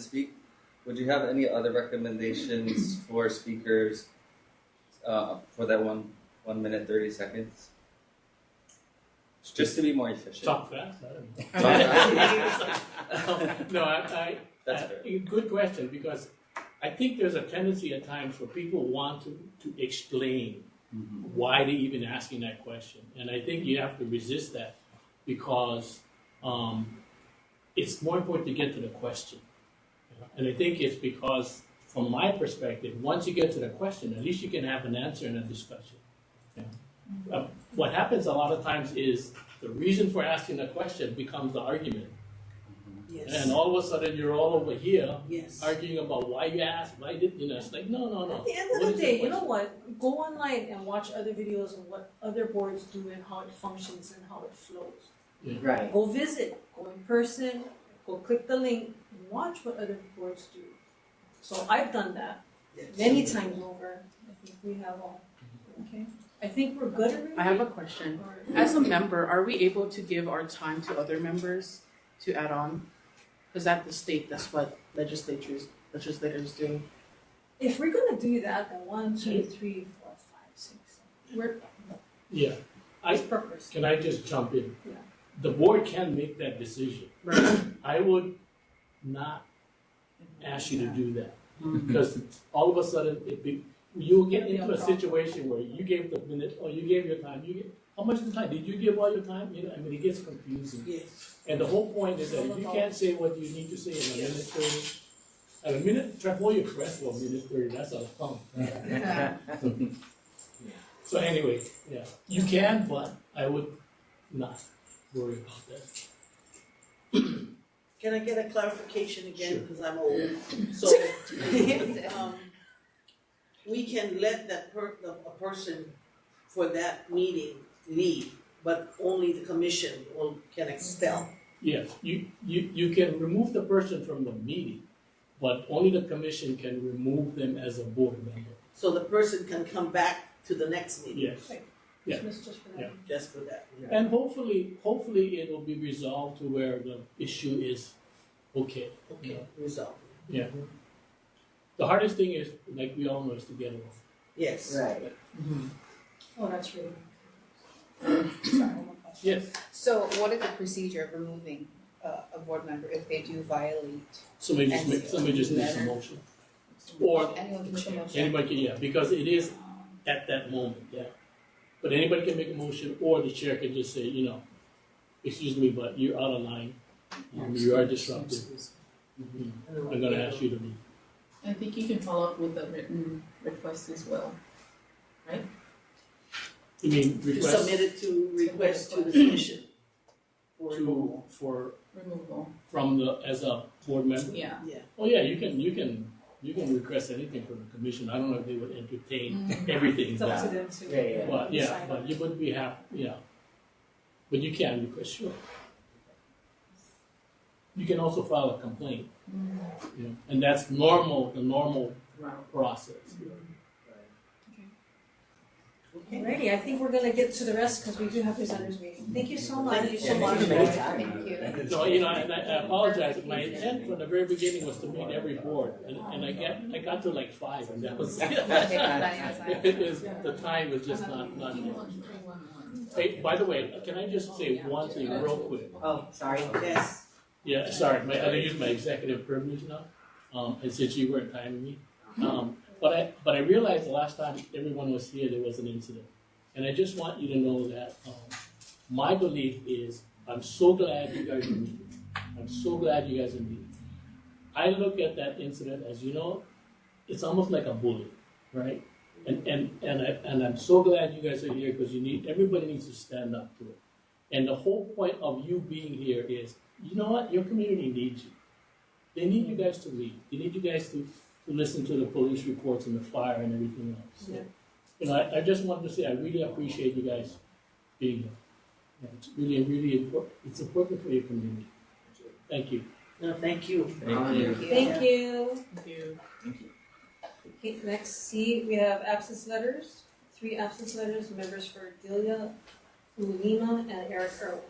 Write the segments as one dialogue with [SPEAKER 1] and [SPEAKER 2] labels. [SPEAKER 1] speak, would you have any other recommendations for speakers uh, for that one one minute thirty seconds? Just to be more efficient.
[SPEAKER 2] Talk fast. I don't know.
[SPEAKER 1] Talk fast.
[SPEAKER 2] no, I, I,
[SPEAKER 1] That's fair.
[SPEAKER 2] I good question because I think there's a tendency at times where people want to, to explain why they even asking that question, and I think you have to resist that because um, it's more important to get to the question. you know? And I think it's because, from my perspective, once you get to the question, at least you can have an answer in a discussion. you know? Uh, what happens a lot of times is the reason for asking the question becomes the argument. And
[SPEAKER 3] Yes.
[SPEAKER 2] all of a sudden, you're all over here
[SPEAKER 3] Yes.
[SPEAKER 2] arguing about why you asked, why did you know? It's like no, no, no.
[SPEAKER 3] At the end
[SPEAKER 2] What
[SPEAKER 3] of
[SPEAKER 2] is
[SPEAKER 3] the
[SPEAKER 2] the
[SPEAKER 3] day, you
[SPEAKER 2] question?
[SPEAKER 3] know what? Go online and watch other videos on what other boards do and how it functions and how it flows.
[SPEAKER 4] Right.
[SPEAKER 3] Go visit, go in person, go click the link, and watch what other boards do. So I've done that many times over. I think we have all. Okay. I think we're good already.
[SPEAKER 5] I have a question.
[SPEAKER 3] Or-
[SPEAKER 5] As a member, are we able to give our time to other members to add on? Because at the state, that's what legislatures legislators do.
[SPEAKER 3] If we're gonna do that, then one, two, three, four, five, six. seven. We're
[SPEAKER 2] Yeah. I-
[SPEAKER 3] it's purpose.
[SPEAKER 2] Can I just jump in?
[SPEAKER 3] Yeah.
[SPEAKER 2] The board can make that decision.
[SPEAKER 5] Right.
[SPEAKER 2] I would not ask you to do that because all of a sudden it be, you'll get
[SPEAKER 3] It'll be
[SPEAKER 2] into
[SPEAKER 3] Mm-hmm. a
[SPEAKER 2] a
[SPEAKER 3] problem.
[SPEAKER 2] situation where you gave the minute or you gave your time. You gave, how much of the time did you give all your time? You know, I mean, it gets confusing.
[SPEAKER 4] Yes.
[SPEAKER 2] And the whole point is that if you can't say what you need to say in a minute thirty, at a minute, try hold your breath for a minute thirty, that's a pump. So anyway, yeah, you can, but I would not worry about that.
[SPEAKER 4] Can I get a clarification again,
[SPEAKER 2] Sure.
[SPEAKER 4] because I'm old? So, um, we can let that per, the, a person for that meeting leave, but only the commission will, can expel.
[SPEAKER 2] Yes, you, you, you can remove the person from the meeting, but only the commission can remove them as a board member.
[SPEAKER 4] So the person can come back to the next meeting,
[SPEAKER 2] Yes. Yeah.
[SPEAKER 3] Dismiss just for that.
[SPEAKER 2] Yeah.
[SPEAKER 4] just for that.
[SPEAKER 2] And hopefully, hopefully it'll be resolved to where the issue is okay.
[SPEAKER 4] Okay, resolved.
[SPEAKER 2] The hardest thing is, like we all know, is to get along.
[SPEAKER 4] Yes.
[SPEAKER 2] Right.
[SPEAKER 3] Oh, that's really.
[SPEAKER 2] Yes.
[SPEAKER 6] So what is the procedure of removing uh, a board member if they do violate?
[SPEAKER 2] Somebody just make, somebody just makes a motion. Or
[SPEAKER 6] Anyone can make a motion.
[SPEAKER 2] anybody can, yeah, because it is
[SPEAKER 3] Um,
[SPEAKER 2] at that moment, yeah. But anybody can make a motion, or the chair can just say, you know, excuse me, but you're out of line, Um, you are disruptive, I'm gonna ask you to leave.
[SPEAKER 7] I think you can follow up with a written request as well.
[SPEAKER 2] You mean
[SPEAKER 4] To
[SPEAKER 2] request
[SPEAKER 4] submit it to request to the commission. for
[SPEAKER 2] to,
[SPEAKER 4] removal.
[SPEAKER 2] for,
[SPEAKER 7] Removal,
[SPEAKER 2] from the, as a board member?
[SPEAKER 7] yeah.
[SPEAKER 2] Oh, yeah, you can, you can, you can request anything from the commission, I don't know if they would entertain
[SPEAKER 7] Mm.
[SPEAKER 2] everything,
[SPEAKER 3] It's up to
[SPEAKER 2] but,
[SPEAKER 3] them to.
[SPEAKER 4] Yeah, yeah.
[SPEAKER 2] but, yeah,
[SPEAKER 3] Decide.
[SPEAKER 2] but you would be happy, yeah. But you can request, sure. You can also file a complaint. Yeah, and that's normal, the normal process.
[SPEAKER 4] Okay.
[SPEAKER 3] Alrighty, I think we're gonna get to the rest because we do have presenters waiting. Thank you so much.
[SPEAKER 4] Thank you so
[SPEAKER 3] so
[SPEAKER 4] much.
[SPEAKER 6] Thank you.
[SPEAKER 2] No, you know, and I, I apologize, my intent from the very beginning was to meet every board, and, and I get, I got to like five, and that was it. It is, the time is just not, not. Hey, by the way, can I just say one thing real quick?
[SPEAKER 4] Oh, sorry. Yes.
[SPEAKER 2] Yeah, sorry, my, I use my executive privilege now, um, and since you weren't timing me. Um, but I, but I realized the last time everyone was here, there was an incident. And I just want you to know that, um, my belief is, I'm so glad you guys are meeting. I'm so glad you guys are meeting. I look at that incident as, you know, it's almost like a bully, right? And, and, and I, and I'm so glad you guys are here, because you need, everybody needs to stand up to it. And the whole point of you being here is, you know what, your community needs you. They need you guys to lead, they need you guys to, to listen to the police reports and the fire and everything else, so.
[SPEAKER 3] Yeah.
[SPEAKER 2] You know, I, I just wanted to say, I really appreciate you guys being here. Yeah, It's really, really important, it's important for your community. Thank you.
[SPEAKER 4] No, thank you.
[SPEAKER 1] Thank you.
[SPEAKER 3] Thank you.
[SPEAKER 5] Thank you.
[SPEAKER 3] Okay, next C, we have absence letters. Three absence letters, members for Delia, Ulima, and Eric Earl.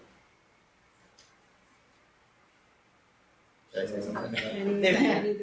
[SPEAKER 8] Did I say something?
[SPEAKER 3] Any,
[SPEAKER 1] There you go.
[SPEAKER 3] any